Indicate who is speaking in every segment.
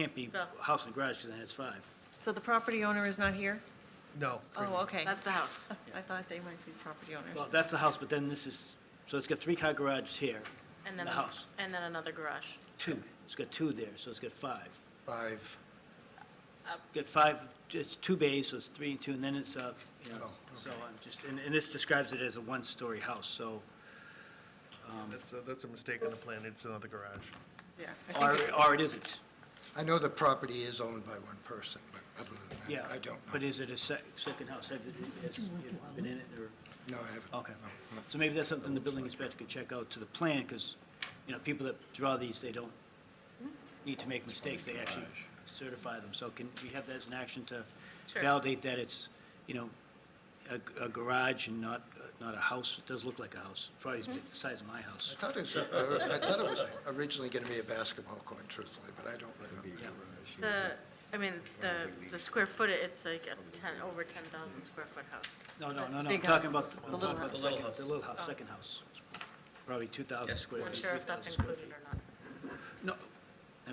Speaker 1: Can't be
Speaker 2: No.
Speaker 1: house and garage, because then it's five.
Speaker 3: So the property owner is not here?
Speaker 4: No.
Speaker 3: Oh, okay.
Speaker 2: That's the house.
Speaker 3: I thought they might be property
Speaker 1: Well,
Speaker 3: owners.
Speaker 1: that's the house, but then this is, so it's got three-car garages here,
Speaker 2: And
Speaker 1: the
Speaker 2: then,
Speaker 1: house,
Speaker 2: and then another garage.
Speaker 1: two. It's got two there, so it's got five.
Speaker 4: Five,
Speaker 1: Got five, it's two bays, so it's three and two, and then it's, uh, you know,
Speaker 4: Oh,
Speaker 1: so I'm just, and, and this describes it as a one-story house, so,
Speaker 5: That's, a- that's a mistake on the plan, it's another garage.
Speaker 3: Yeah.
Speaker 1: or, or it isn't,
Speaker 4: I know the property is owned by one person, but other than
Speaker 1: yeah.
Speaker 4: that, I don't
Speaker 1: But
Speaker 4: know.
Speaker 1: is it a sec, second house? Have you, has, you know, been in it, or?
Speaker 4: No, I haven't.
Speaker 1: Okay.
Speaker 4: No, no.
Speaker 1: So maybe that's something the building inspector could check out to the plan, because, you know, people that draw these, they don't need to make mistakes, they actually certify them. So can we have that as an action to
Speaker 2: Sure.
Speaker 1: validate that it's, you know, a, a garage and not, not a house? It does look like a house, probably
Speaker 3: Mm-hmm.
Speaker 1: the size of my house.
Speaker 4: I thought it was, uh, I thought it was originally going to be a basketball court, truthfully, but I don't remember.
Speaker 2: The, I mean, the, the square footage, it's like a 10, over 10,000 square foot house.
Speaker 1: No, no,
Speaker 3: The
Speaker 1: no, no, I'm
Speaker 3: big
Speaker 1: talking
Speaker 3: house,
Speaker 1: about.
Speaker 3: the
Speaker 1: I'm
Speaker 3: little
Speaker 1: talking about
Speaker 3: house.
Speaker 1: The
Speaker 3: Oh.
Speaker 1: little house, the little house, second house. Probably 2,000 square feet.
Speaker 2: Not sure if that's
Speaker 1: 3,000 square
Speaker 2: included or not.
Speaker 1: feet. No,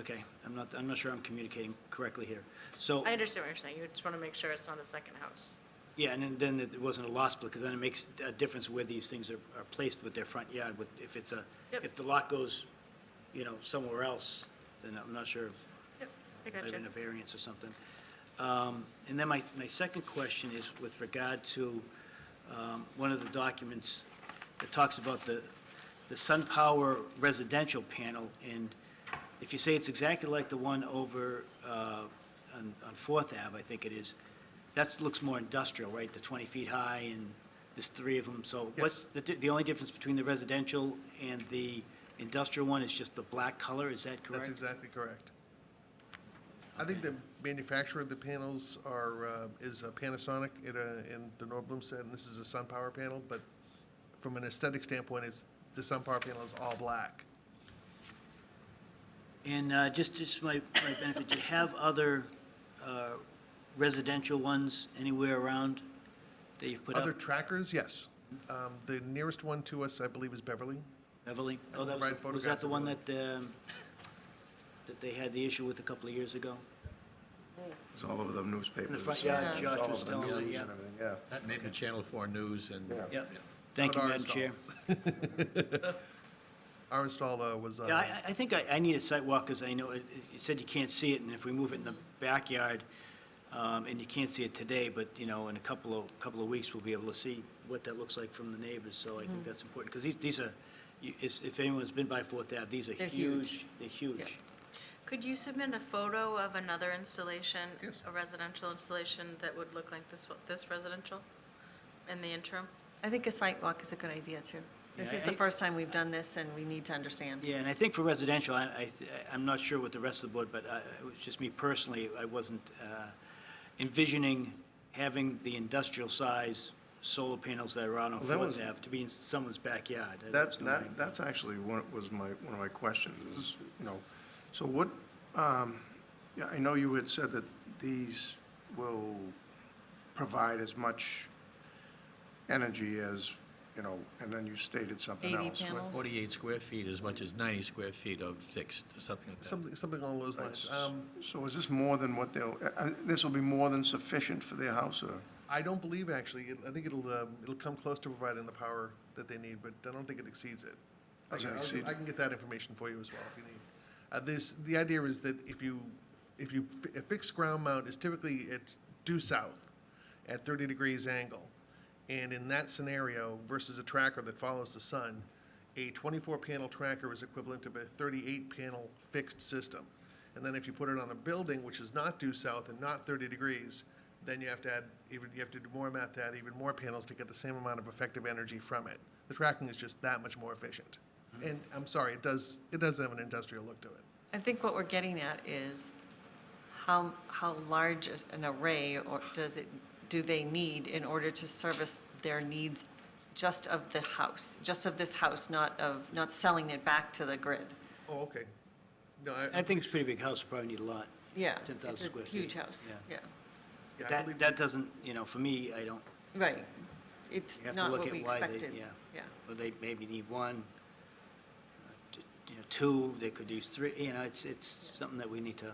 Speaker 1: okay, I'm not, I'm not sure I'm communicating correctly here. So.
Speaker 2: I understand what you're saying, you just want to make sure it's not a second house.
Speaker 1: Yeah, and then- then it wasn't a lot split, because then it makes a difference where these things are, are placed with their front yard, with, if it's a,
Speaker 2: Yep.
Speaker 1: if the lot goes, you know, somewhere else, then I'm not sure,
Speaker 2: Yep, I got
Speaker 1: maybe in
Speaker 2: you.
Speaker 1: a variance or something. Um, And then my, my second question is with regard to um, one of the documents that talks about the, the SunPower residential panel, and if you say it's exactly like the one over uh, on, on Fourth Ave, I think it is, that looks more industrial, right? The 20 feet high and there's three of them, so what's, the, di- the only difference between the residential and the industrial one is just the black color, is that correct?
Speaker 5: That's exactly correct. I think the manufacturer of the panels are, uh, is uh, Panasonic in, uh, in the North Bloomstead, and this is a SunPower panel, but from an aesthetic standpoint, it's, the SunPower panel is all black.
Speaker 1: And uh, just, just my, my benefit, do you have other uh, residential ones anywhere around that you've put up?
Speaker 5: Other trackers, yes. Um, The nearest one to us, I believe, is Beverly.
Speaker 1: Beverly?
Speaker 5: I
Speaker 1: Oh, that
Speaker 5: provide
Speaker 1: was, was that
Speaker 5: photographs
Speaker 1: the
Speaker 5: of
Speaker 1: one
Speaker 5: them.
Speaker 1: that, um, that they had the issue with a couple of years ago?
Speaker 6: It's all over the newspapers.
Speaker 1: In the front yard,
Speaker 6: It's
Speaker 1: Josh
Speaker 6: all
Speaker 1: was
Speaker 6: over the
Speaker 1: telling me,
Speaker 6: news
Speaker 1: yeah.
Speaker 6: and everything, Yeah.
Speaker 7: That made the Channel 4 news and
Speaker 1: Yeah. Thank you,
Speaker 5: Not
Speaker 1: Madam
Speaker 5: ours,
Speaker 1: Chair.
Speaker 5: Our installer was, uh,
Speaker 1: Yeah, I, I- I think I, I need a site walk, because I know, it it- you said you can't see it, and if we move it in the backyard, um, and you can't see it today, but, you know, in a couple of, couple of weeks, we'll be able to see what that looks like from the neighbors, so I think that's important, because these, these are, you- it's- if anyone's been by Fourth Ave, these are
Speaker 3: They're
Speaker 1: huge.
Speaker 3: huge.
Speaker 1: They're huge.
Speaker 2: Could you submit a photo of another installation?
Speaker 5: Yes.
Speaker 2: A residential installation that would look like this, one- this residential in the interim?
Speaker 3: I think a site walk is a good idea, too. This
Speaker 1: Yeah,
Speaker 3: is the
Speaker 1: I-
Speaker 3: first time we've done this, and we need to understand.
Speaker 1: Yeah, and I think for residential, I, I, th- I'm not sure with the rest of the board, but I, it was just me personally, I wasn't uh, envisioning having the industrial size solar panels that are out on
Speaker 6: Well, that
Speaker 1: Fourth
Speaker 6: was-
Speaker 1: Ave to be in someone's backyard. That
Speaker 6: That,
Speaker 1: was my-
Speaker 6: that, that's actually what was my, one of my questions, is, you know, so what, um, yeah, I know you had said that these will provide as much energy as, you know, and then you stated something
Speaker 3: 80
Speaker 6: else. with-
Speaker 3: panels?
Speaker 7: 48 square feet as much as 90 square feet of fixed, or something like that.
Speaker 5: something, something along those lines. Um,
Speaker 6: So is this more than what they'll, uh, uh, this will be more than sufficient for their house, or?
Speaker 5: I don't believe, actually, It- I think it'll, um, it'll come close to providing the power that they need, but I don't think it exceeds it. I
Speaker 6: Doesn't
Speaker 5: can- I'll-
Speaker 6: exceed
Speaker 5: I
Speaker 6: it.
Speaker 5: can get that information for you as well if you need. Uh, This, the idea is that if you, if you, fi- a fixed ground mount is typically it's due south at 30 degrees angle. And in that scenario versus a tracker that follows the sun, a 24-panel tracker is equivalent to a 38-panel fixed system. And then if you put it on a building which is not due south and not 30 degrees, then you have to add, even, you have to do more math to add even more panels to get the same amount of effective energy from it. The tracking is just that much more efficient. And I'm sorry, it does, it does have an industrial look to it.
Speaker 3: I think what we're getting at is how, how large is an array, or does it, do they need in order to service their needs just of the house, just of this house, not of, not selling it back to the grid?
Speaker 5: Oh, okay. No, I,
Speaker 1: I think it's a pretty big house, probably need a lot.
Speaker 3: Yeah.
Speaker 1: 10,000
Speaker 3: it's a
Speaker 1: square feet.
Speaker 3: Huge house,
Speaker 1: Yeah.
Speaker 3: yeah,
Speaker 5: yeah, I
Speaker 1: That,
Speaker 5: believe-
Speaker 1: that doesn't, you know, for me, I don't,
Speaker 3: right. It's
Speaker 1: You have to
Speaker 3: not
Speaker 1: look
Speaker 3: what
Speaker 1: at
Speaker 3: we
Speaker 1: why they-
Speaker 3: expected,
Speaker 1: yeah.
Speaker 3: yeah.
Speaker 1: well, they maybe need one, uh, t- you know, two, they could use three, you know, it's, it's something that we need to